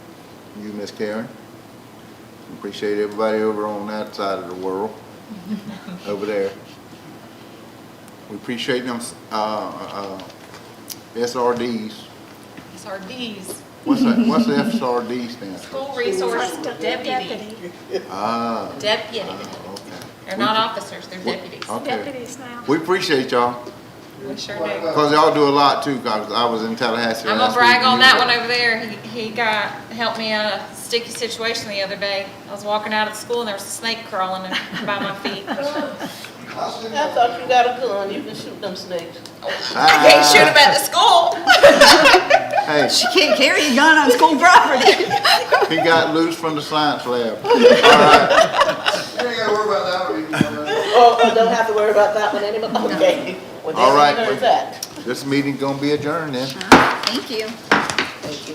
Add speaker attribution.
Speaker 1: you, Miss Karen. Appreciate everybody over on that side of the world, over there. We appreciate them, uh, uh, SRDs.
Speaker 2: SRDs,
Speaker 1: What's that, what's the SRD stand for?
Speaker 2: school resource deputy,
Speaker 3: Deputy.
Speaker 1: Ah,
Speaker 2: deputy.
Speaker 1: ah, okay.
Speaker 2: They're not officers, they're
Speaker 1: We-
Speaker 2: deputies.
Speaker 1: Okay.
Speaker 3: Deputies now.
Speaker 1: We appreciate y'all,
Speaker 2: We sure do.
Speaker 1: cause y'all do a lot too, cause I was in Tallahassee.
Speaker 2: I'm gonna
Speaker 1: last
Speaker 2: brag
Speaker 1: week
Speaker 2: on
Speaker 1: and you
Speaker 2: that
Speaker 1: were-
Speaker 2: one over there. He, he got, helped me out of a sticky situation the other day. I was walking out of school and there was a snake crawling in- by my feet.
Speaker 4: I thought you got a gun, you can shoot them snakes.
Speaker 2: I can't shoot him at the school.
Speaker 1: Hey,
Speaker 5: She can't carry a gun on school property.
Speaker 1: he got loose from the science lab.
Speaker 6: You ain't gotta worry about that one.
Speaker 4: Oh, oh, don't have to worry about that one anymore, okay. Well,
Speaker 1: All right.
Speaker 4: there's that.
Speaker 1: This meeting gonna be adjourned then.
Speaker 5: Thank you.